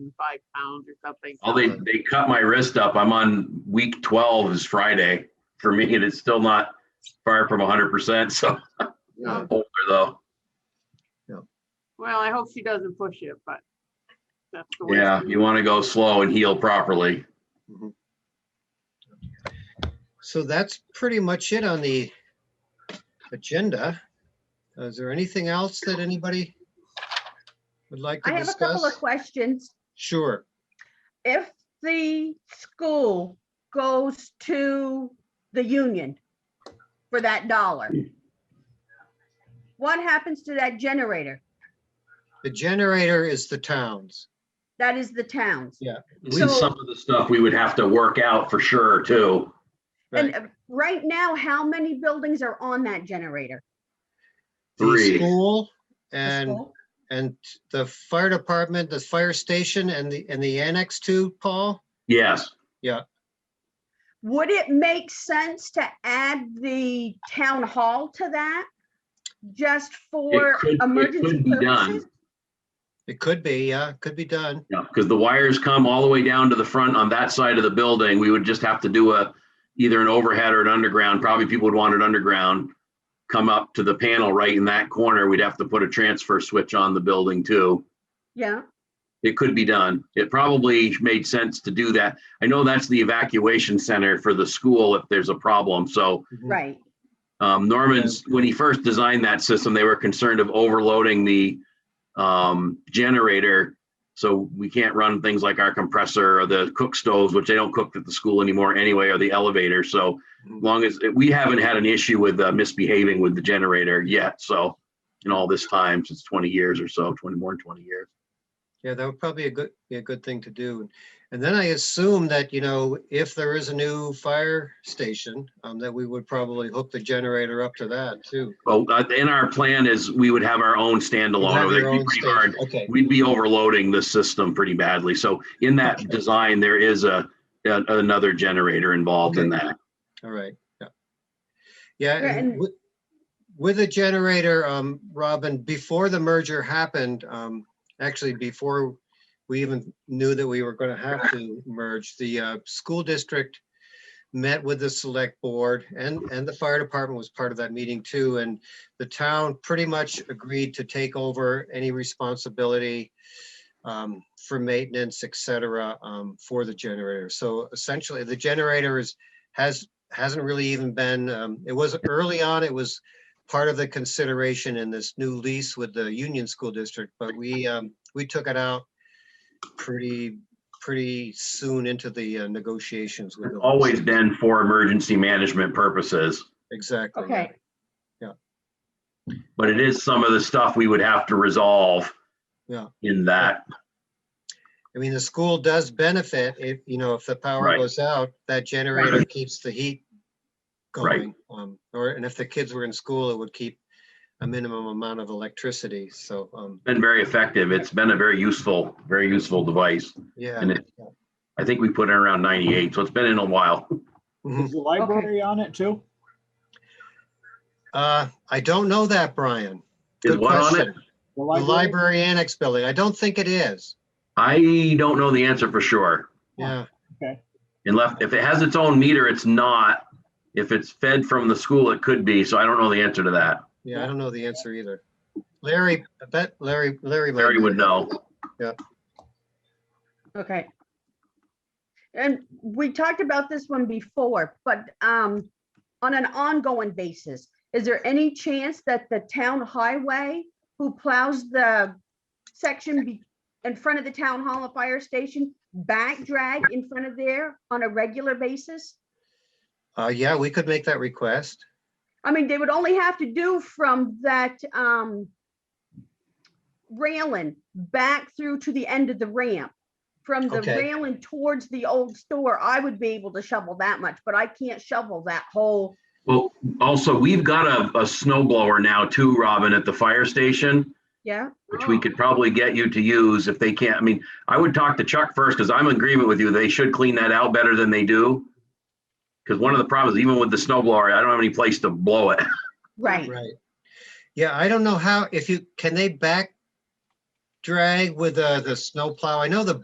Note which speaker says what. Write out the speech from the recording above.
Speaker 1: and five pounds or something.
Speaker 2: Oh, they, they cut my wrist up. I'm on week 12 is Friday for me, and it's still not far from 100%. So
Speaker 3: Yeah,
Speaker 2: older though.
Speaker 1: Well, I hope she doesn't push it, but that's the way.
Speaker 2: Yeah,
Speaker 1: she-
Speaker 2: you want to go slow and heal properly.
Speaker 3: so that's pretty much it on the agenda. Is there anything else that anybody would like
Speaker 4: I
Speaker 3: to
Speaker 4: have a couple of
Speaker 3: discuss?
Speaker 4: questions.
Speaker 3: Sure.
Speaker 4: If the school goes to the union for that dollar, what happens to that generator?
Speaker 3: The generator is the town's.
Speaker 4: That is the town's.
Speaker 2: At least
Speaker 4: So-
Speaker 2: some of the stuff we would have to work out for sure too.
Speaker 3: Right.
Speaker 4: And uh, right now, how many buildings are on that generator?
Speaker 3: The
Speaker 2: Three.
Speaker 3: school
Speaker 4: The
Speaker 3: and,
Speaker 4: school?
Speaker 3: and the fire department, the fire station and the, and the annex too, Paul?
Speaker 2: Yes.
Speaker 4: Would it make sense to add the town hall to that? Just for
Speaker 2: could- it could
Speaker 4: emergency
Speaker 2: be done.
Speaker 4: purposes?
Speaker 3: It could be, yeah, could be done.
Speaker 2: Yeah, because the wires come all the way down to the front on that side of the building. We would just have to do a, either an overhead or an underground. Probably people would want it underground. Come up to the panel right in that corner. We'd have to put a transfer switch on the building too.
Speaker 4: Yeah,
Speaker 2: It could be done. It probably made sense to do that. I know that's the evacuation center for the school if there's a problem. So
Speaker 3: Mm.
Speaker 4: right.
Speaker 2: um, Norman's, when he first designed that system, they were concerned of overloading the um, generator. So we can't run things like our compressor or the cook stoves, which they don't cook at the school anymore anyway, or the elevator. So as long as, we haven't had an issue with uh, misbehaving with the generator yet. So in all this time, since 20 years or so, 20, more than 20 years.
Speaker 3: Yeah, that would probably a good, be a good thing to do. And then I assume that, you know, if there is a new fire station, um, that we would probably hook the generator up to that too.
Speaker 2: Well, uh, in our plan is we would have our own
Speaker 3: You
Speaker 2: standalone.
Speaker 3: have
Speaker 2: over there.
Speaker 3: your
Speaker 2: It'd be
Speaker 3: own
Speaker 2: pretty
Speaker 3: station.
Speaker 2: hard
Speaker 3: Okay,
Speaker 2: we'd be overloading the system pretty badly. So in that design, there is a, a- another generator involved in that.
Speaker 3: all right, yeah. Yeah,
Speaker 4: Yeah,
Speaker 3: and
Speaker 4: and-
Speaker 3: with- with a generator, um, Robin, before the merger happened, um, actually before we even knew that we were gonna have to merge, the, uh, school district met with the select board and, and the fire department was part of that meeting too. And the town pretty much agreed to take over any responsibility um, for maintenance, et cetera, um, for the generator. So essentially, the generator is, has, hasn't really even been, um, it was early on, it was part of the consideration in this new lease with the Union School District, but we, um, we took it out pretty, pretty soon into the uh, negotiations with. the lease.
Speaker 2: Always been for emergency management purposes,
Speaker 3: Exactly. yeah.
Speaker 4: Okay,
Speaker 2: but it is some of the stuff we would have to resolve.
Speaker 3: Yeah.
Speaker 2: In that,
Speaker 3: I mean, the school does benefit if, you know, if the power
Speaker 2: Right.
Speaker 3: goes out, that generator keeps the heat
Speaker 2: Right.
Speaker 3: going. Um, or, and if the kids were in school, it would keep a minimum amount of electricity. So, um,
Speaker 2: been very effective. It's been a very useful, very useful device.
Speaker 3: yeah.
Speaker 2: And it- I think we put it around 98, so it's been in a while.
Speaker 3: Mhm.
Speaker 5: Is the library on it too?
Speaker 3: Uh, I don't know that, Brian.
Speaker 2: Is
Speaker 3: Good
Speaker 2: what on it?
Speaker 3: question. The library annex building. I don't think it is.
Speaker 2: I don't know the answer for sure.
Speaker 3: Yeah.
Speaker 2: And left, if it has its own meter, it's not. If it's fed from the school, it could be. So I don't know the answer to that.
Speaker 3: Yeah. I
Speaker 5: Yeah.
Speaker 3: don't know the answer either. Larry, I bet Larry, Larry. might
Speaker 2: Larry
Speaker 3: know.
Speaker 2: would know.
Speaker 4: okay. And we talked about this one before, but um, on an ongoing basis, is there any chance that the town highway who plows the section be- in front of the town hall and fire station back drag in front of there on a regular basis?
Speaker 3: Uh, yeah, we could make that request.
Speaker 4: I mean, they would only have to do from that um railing back through to the end of the ramp. From the
Speaker 3: Okay.
Speaker 4: railing towards the old store, I would be able to shovel that much, but I can't shovel that whole,
Speaker 2: Well, also, we've got a, a snow blower now too, Robin, at the fire station,
Speaker 4: yeah,
Speaker 2: which we could probably get you to use if they can't. I mean, I would talk to Chuck first because I'm in agreement with you. They should clean that out better than they do. Because one of the problems, even with the snow blower, I don't have any place to blow it.
Speaker 4: right.
Speaker 3: Right. Yeah, I don't know how, if you, can they back drag with uh, the snowplow? I know the